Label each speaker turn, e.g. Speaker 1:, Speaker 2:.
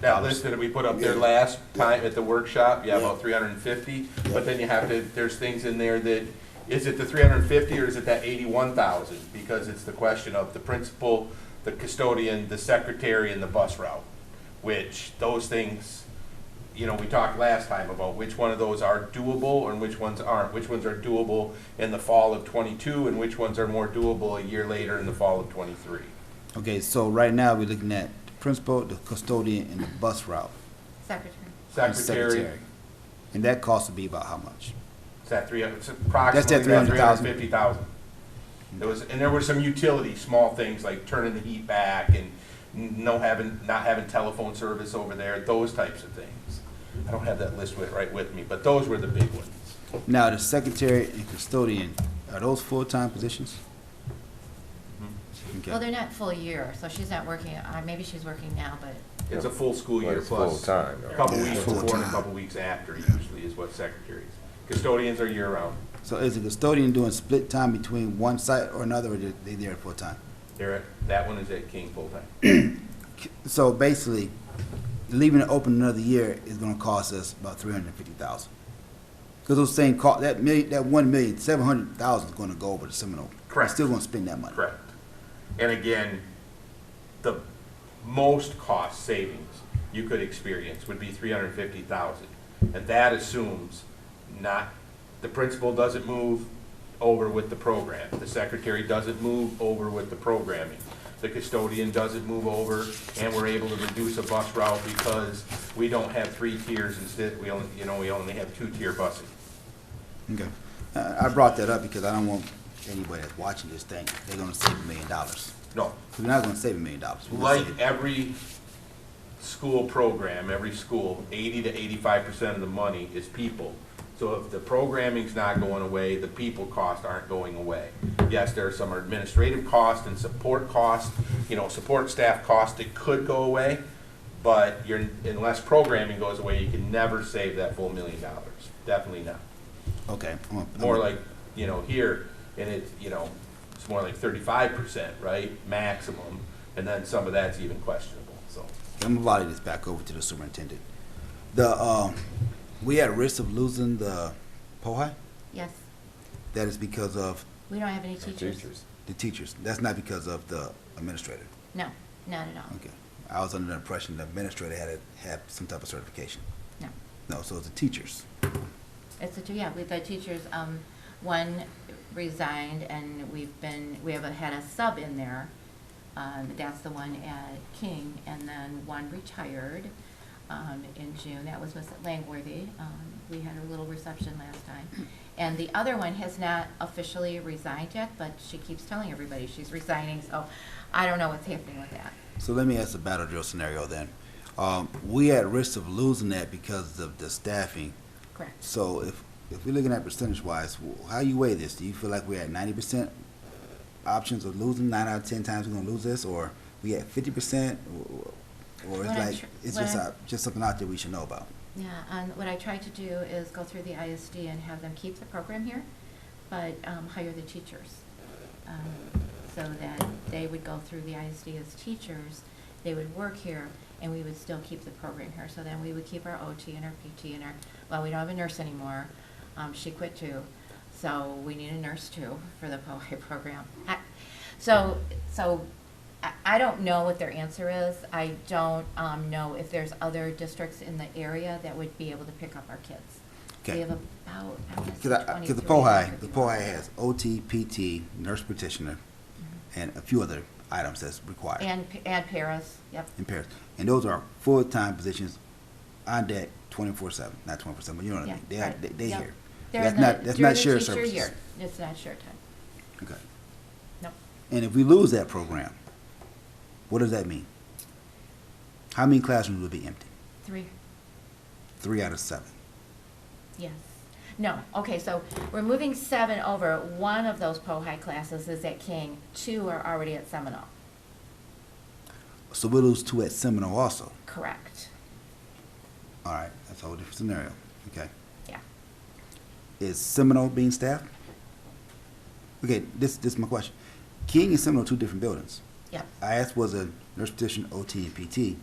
Speaker 1: That list that we put up there
Speaker 2: Yeah.
Speaker 1: last time at the workshop, yeah,
Speaker 2: Yeah.
Speaker 1: about three hundred and fifty,
Speaker 2: Yeah.
Speaker 1: but then you have to, there's things in there that, is it the three hundred and fifty or is it that eighty-one thousand? Because it's the question of the principal, the custodian, the secretary, and the bus route, which those things, you know, we talked last time about which one of those are doable and which ones aren't, which ones are doable in the fall of twenty-two and which ones are more doable a year later in the fall of twenty-three.
Speaker 3: Okay, so right now, we're looking at the principal, the custodian, and the bus route.
Speaker 4: Secretary.
Speaker 3: and
Speaker 1: Secretary,
Speaker 3: And that cost would be about how much?
Speaker 1: It's that three, it's approximately that three hundred and
Speaker 3: 300,000.
Speaker 1: fifty thousand. There was, and there were some utility, small things like turning the heat back and no having, not having telephone service over there, those types of things. I don't have that list with, right with me, but those were the big ones.
Speaker 3: Now, the secretary and custodian, are those full-time positions?
Speaker 1: Mm-hmm.
Speaker 4: Well,
Speaker 3: Okay,
Speaker 4: they're not full year, so she's not working, uh, maybe she's working now, but
Speaker 1: It's a full school
Speaker 5: Well,
Speaker 1: year
Speaker 5: it's
Speaker 1: plus.
Speaker 5: full-time,
Speaker 1: A
Speaker 5: right?
Speaker 1: couple
Speaker 2: Yeah,
Speaker 1: weeks before and a
Speaker 2: full-time.
Speaker 1: couple weeks after usually is what secretaries. Custodians are year-round.
Speaker 3: so is the custodian doing split time between one site or another, or they they there full-time?
Speaker 1: They're, at- that one is at King full-time.
Speaker 3: So basically, leaving it open another year is gonna cost us about three hundred and fifty thousand. Cause those same cost, that million, that one million, seven hundred thousand is gonna go over to Seminole.
Speaker 1: Correct.
Speaker 3: We're still gonna spend that money.
Speaker 1: Correct. And again, the most cost savings you could experience would be three hundred and fifty thousand. And that assumes not, the principal doesn't move over with the program, the secretary doesn't move over with the programming, the custodian doesn't move over, and we're able to reduce a bus route because we don't have three tiers instead, we only, you know, we only have two-tier busing.
Speaker 3: Okay. Uh, I brought that up because I don't want anybody that's watching this thing, they're gonna save a million dollars.
Speaker 1: No,
Speaker 3: We're not gonna save a million dollars. We're gonna
Speaker 1: like
Speaker 3: save-
Speaker 1: every school program, every school, eighty to eighty-five percent of the money is people. So if the programming's not going away, the people costs aren't going away. Yes, there are some administrative costs and support costs, you know, support staff costs that could go away, but you're, unless programming goes away, you can never save that full million dollars. Definitely not
Speaker 3: Okay. I'm gonna- I'm
Speaker 1: more
Speaker 3: gonna-
Speaker 1: like, you know, here, and it's, you know, it's more like thirty-five percent, right, maximum, and then some of that's even questionable, so.
Speaker 3: I'm gonna volley this back over to the superintendent. The, um, we at risk of losing the POHI?
Speaker 4: yes,
Speaker 3: That is because of
Speaker 4: we don't have any
Speaker 5: Our
Speaker 4: teachers.
Speaker 5: teachers.
Speaker 3: the teachers. That's not because of the administrator.
Speaker 4: No, not at all,
Speaker 3: Okay. I was under the impression the administrator had, a- had some type of certification.
Speaker 4: no.
Speaker 3: No, so it's the teachers.
Speaker 4: It's the, two- yeah, we've had teachers, um, one resigned and we've been, we have a- had a sub in there. Um, that's the one at King and then one retired, um, in June. That was Miss Langworthy. Um, we had a little reception last time. And the other one has not officially resigned yet, but she keeps telling everybody she's resigning, so I don't know what's happening with that.
Speaker 3: So let me ask the battle drill scenario then. Um, we at risk of losing that because of the staffing.
Speaker 4: Correct.
Speaker 3: So if, if we're looking at percentage wise, how you weigh this? Do you feel like we're at ninety percent options of losing, nine out of ten times we're gonna lose this, or we at fifty percent? Or
Speaker 4: What
Speaker 3: it's
Speaker 4: I'm
Speaker 3: like,
Speaker 4: tr-
Speaker 3: it's
Speaker 4: what
Speaker 3: just,
Speaker 4: I'm-
Speaker 3: uh, just something out there we should know about?
Speaker 4: Yeah, and what I try to do is go through the ISD and have them keep the program here, but um, hire the teachers. um, So that they would go through the ISD as teachers, they would work here, and we would still keep the program here. So then we would keep our OT and our PT and our, well, we don't have a nurse anymore. Um, She quit too, so we need a nurse too for the POHI program. I- So, so I, I don't know what their answer is. I don't, um, know if there's other districts in the area that would be able to pick up our kids. We
Speaker 3: Okay.
Speaker 4: have about, I wanna say
Speaker 3: Cause I, cause the
Speaker 4: 23
Speaker 3: POHI,
Speaker 4: districts
Speaker 3: the
Speaker 4: in Ohio.
Speaker 3: POHI has OT, PT, nurse practitioner,
Speaker 4: Mm-hmm.
Speaker 3: and a few other items that's required.
Speaker 4: And, pa- and Paris, yep,
Speaker 3: in Paris. And those are full-time positions on deck twenty-four seven, not twenty-four seven, but you know what I
Speaker 4: yeah.
Speaker 3: mean? They are,
Speaker 4: right,
Speaker 3: they, they
Speaker 4: yep.
Speaker 3: here.
Speaker 4: They're
Speaker 3: That's
Speaker 4: in the-
Speaker 3: not, that's
Speaker 4: during
Speaker 3: not
Speaker 4: the
Speaker 3: shared
Speaker 4: teacher
Speaker 3: services.
Speaker 4: year. It's not shared time,
Speaker 3: Okay.
Speaker 4: no.
Speaker 3: And if we lose that program, what does that mean? How many classrooms will be empty?
Speaker 4: Three,
Speaker 3: Three out of seven.
Speaker 4: yes. No, okay, so we're moving seven over. One of those POHI classes is at King, two are already at Seminole,
Speaker 3: So we'll lose two at Seminole also.
Speaker 4: correct,
Speaker 3: All right, that's a whole different scenario. Okay.
Speaker 4: yeah.
Speaker 3: Is Seminole being staffed? Okay, this, this is my question. King and Seminole are two different buildings.
Speaker 4: Yep,
Speaker 3: I asked was a nurse petition, OT, and PT.